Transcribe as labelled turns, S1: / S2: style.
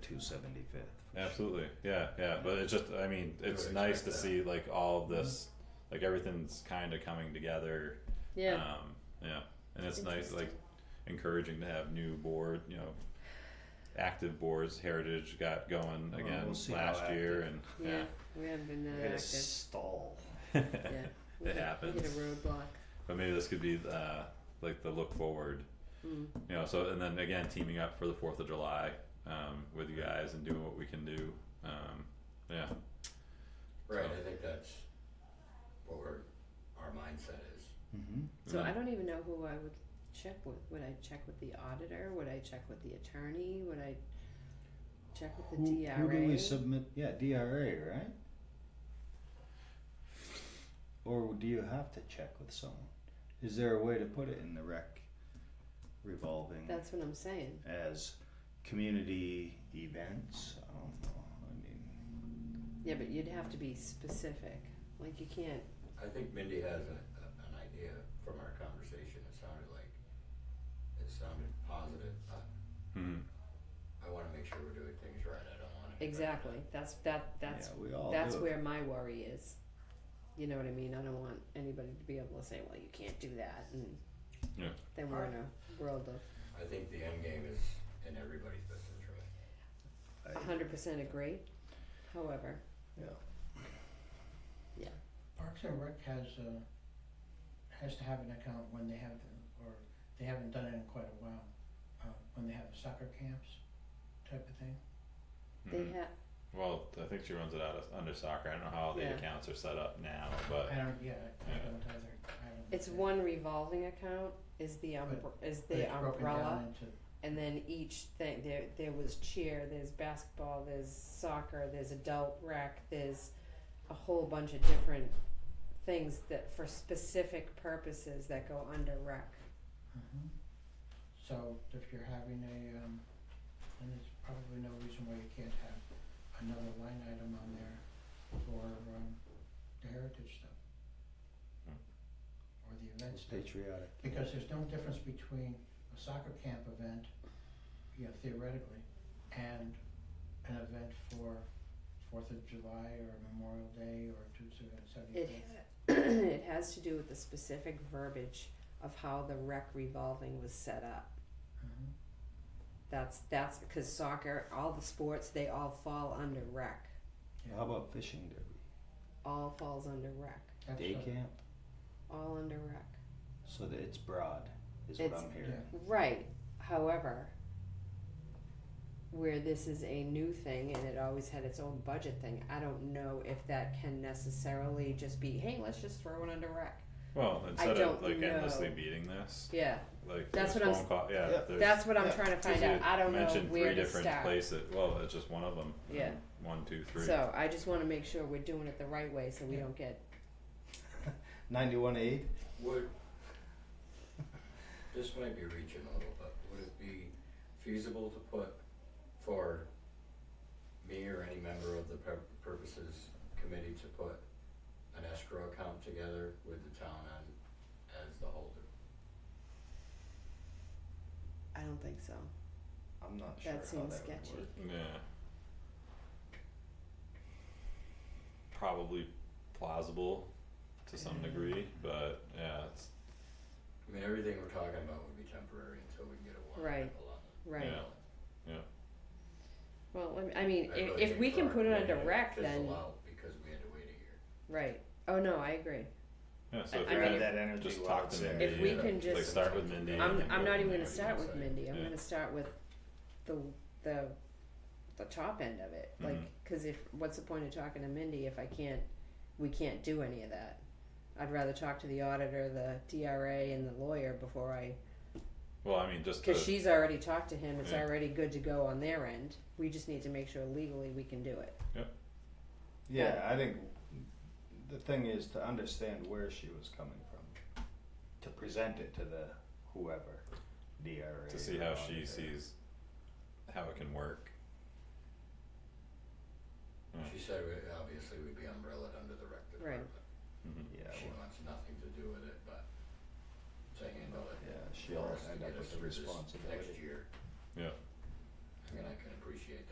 S1: two seventy fifth.
S2: Absolutely. Yeah, yeah. But it's just I mean, it's
S1: would
S2: nice
S1: expect
S2: to
S1: that.
S2: see like all
S3: Mm-hmm.
S2: of this like everything's kinda coming together.
S3: Yeah.
S2: Um yeah. And it's nice like encouraging to have new board, you know active boards heritage got going
S1: Well,
S2: again
S1: we'll see how
S2: last year
S1: active.
S2: and
S3: yeah. We haven't been that
S1: Gotta
S3: active.
S1: stall.
S2: yeah.
S3: Yeah.
S2: It
S3: We hit- We hit
S2: happens.
S3: a roadblock.
S2: but maybe this could be uh like the look forward.
S3: Mm.
S2: You know, so and then again teaming up for the fourth of July um with you guys and doing what we can do. Um yeah.
S4: Right, I think that's what we're, our mindset is.
S1: Mm-hmm.
S3: So
S2: Mm.
S3: I don't even know who I would check with. Would I check with the auditor? Would I check with the attorney? Would I check with the
S1: Who,
S3: DRA?
S1: who do we submit? Yeah, DRA, right? Or do you have to check with someone? Is there a way to put it in the rec revolving
S3: That's what I'm saying.
S1: as community events? I don't know. I mean,
S3: Yeah, but you'd have to be specific. Like you can't.
S4: I think Mindy has a, a, an idea from our conversation, it sounded like, it sounded positive, I,
S2: Mhm.
S4: I wanna make sure we're doing things right, I don't wanna.
S3: Exactly. That's that. That's
S1: yeah, we all
S3: that's
S1: do it.
S3: where my worry is. You know what I mean? I don't want anybody to be able to say, "Well, you can't do that," and
S2: Yeah.
S3: then we're in a world of
S4: I think the end game is in everybody's best interest.
S1: I-
S3: hundred percent agree. However,
S1: yeah.
S5: Parks and Rec has uh has to have an account when they have, or they haven't done it in quite a while, uh, when they have soccer camps type of thing.
S3: they
S2: Mhm.
S3: have
S2: Well, I think she runs it out of, under soccer. I don't know how the
S3: Yeah.
S2: accounts are set up now,
S5: I
S2: but
S5: don't, yeah, I
S2: Yeah.
S5: don't either, I haven't.
S3: It's one revolving account is the umbr- is
S5: but
S3: the
S5: it's broken down
S3: umbrella,
S5: into-
S3: and then each thing there there was cheer, there's basketball, there's soccer, there's adult rec, there's a whole bunch of different things that for specific purposes that go under rec.
S5: Mhm. So if you're having a, um, and there's probably no reason why you can't have another line item on there for, um, the heritage stuff. Or the event stuff.
S1: Patriotic.
S5: Because there's no difference between a soccer camp event, you know, theoretically, and an event for Fourth of July or Memorial Day or Tuesday,
S3: It
S5: seventieth.
S3: ha- it has to do with the specific verbiage of how the rec revolving was set up.
S5: Uh-huh.
S3: That's that's because soccer, all the sports, they all fall under rec.
S1: How about fishing derby?
S3: All falls under rec.
S1: Day camp?
S3: All under rec.
S1: So that it's broad, is what
S3: It's-
S1: I'm hearing.
S3: Right. However, where this is a new thing and it always had its own budget thing, I don't know if that can necessarily just be, hey, let's just throw it under rec.
S2: well, instead of
S3: don't
S2: like endlessly
S3: know.
S2: beating this,
S3: Yeah,
S2: like
S3: That's
S2: there's
S3: what I'm
S2: phone call, yeah,
S1: Yeah.
S2: there's,
S3: that's what I'm
S1: yeah,
S3: trying to
S2: there's
S3: find out.
S2: you
S3: I don't know
S2: mentioned
S3: where
S2: three
S3: to
S2: different
S3: start.
S2: places. Well, it's just one of them.
S3: Yeah.
S2: One, two, three.
S3: So I just want to make sure we're doing it the right way so we
S5: Yeah.
S3: don't get.
S1: Ninety-one eight?
S4: Would, this might be reaching a little bit, would it be feasible to put for me or any member of the pur- purposes committee to put an escrow account together with the town as, as the holder?
S3: I don't think so.
S1: I'm not sure
S3: That
S1: how
S3: seems
S1: that would
S3: sketchy.
S1: work.
S2: Yeah. Probably plausible to
S3: Mm.
S2: some degree, but yeah, it's
S4: I mean, everything we're talking about would be temporary until we can get a warrant
S3: Right.
S4: article on it.
S3: Right.
S2: Yeah.
S3: Well, let me- I mean,
S4: I
S3: i-
S4: really
S3: if
S4: think
S3: we
S4: for
S3: can
S4: our
S3: put it
S4: committee,
S3: under rec,
S4: fizzle
S3: then
S4: out because we had to wait a year.
S3: right. Oh no, I agree.
S2: yeah. So
S3: I-
S2: if
S3: I
S2: you're
S3: mean,
S2: gonna
S3: if-
S1: that energy
S2: just
S1: while
S2: talk
S1: it's
S2: to
S1: there.
S2: Mindy
S3: If we
S2: and,
S3: can
S2: like
S3: just-
S2: start with Mindy.
S3: I'm,
S2: and then
S3: I'm
S2: go from
S3: not even
S2: there.
S3: gonna start with Mindy, I'm
S2: Yeah.
S3: gonna start with the, the, the top end of it, like, cause if, what's the point of talking to Mindy if I can't, we can't do any of that? I'd rather talk to the auditor, the DRA and the lawyer before I,
S2: Well, I mean, just
S3: cause
S2: to-
S3: she's already talked to him, it's
S2: Yeah.
S3: already good to go on their end, we just need to make sure legally we can do it.
S1: Yeah, I think the thing is to understand where she was coming from, to present it to the whoever, DRA.
S2: to see how
S1: or
S2: she
S1: auditor.
S2: sees how it can work. Yeah.
S4: She said, we- obviously, we'd be umbrellaed under the rec
S3: Right.
S4: department.
S2: Mhm.
S1: Yeah,
S4: She
S1: well,
S4: wants nothing to do with it, but to handle it.
S1: yeah,
S4: for
S1: she'll
S4: us to
S1: end
S4: get
S1: up
S4: us
S1: with the
S4: through this Next
S1: responsibility.
S4: year.
S2: Yeah.
S4: I mean, I can appreciate that.